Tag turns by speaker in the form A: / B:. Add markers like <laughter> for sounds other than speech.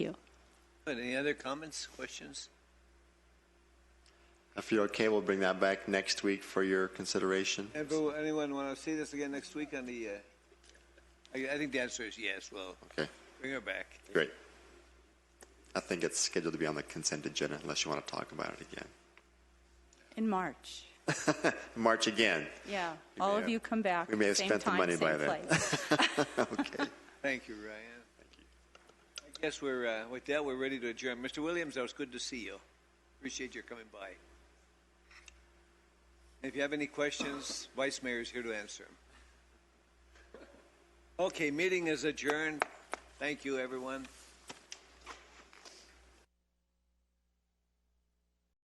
A: Good. Any other comments, questions?
B: If you're okay, we'll bring that back next week for your consideration.
A: Everyone, anyone want to see this again next week on the, uh, I, I think the answer is yes, well,
B: Okay,
A: bring her back.
B: great. I think it's scheduled to be on the consent agenda unless you want to talk about it again.
C: In March,
B: March again.
C: yeah.
B: We
C: All
B: may
C: of
B: have-
C: you come back,
B: we may have
C: same
B: spent the
C: time,
B: money
C: same
B: by then.
C: place.
B: <laughs> Okay.
A: Thank you, Ryan. I guess we're, uh, with that, we're ready to adjourn. Mr. Williams, it was good to see you. Appreciate your coming by. If you have any questions, Vice Mayor is here to answer them. Okay, meeting is adjourned. Thank you, everyone.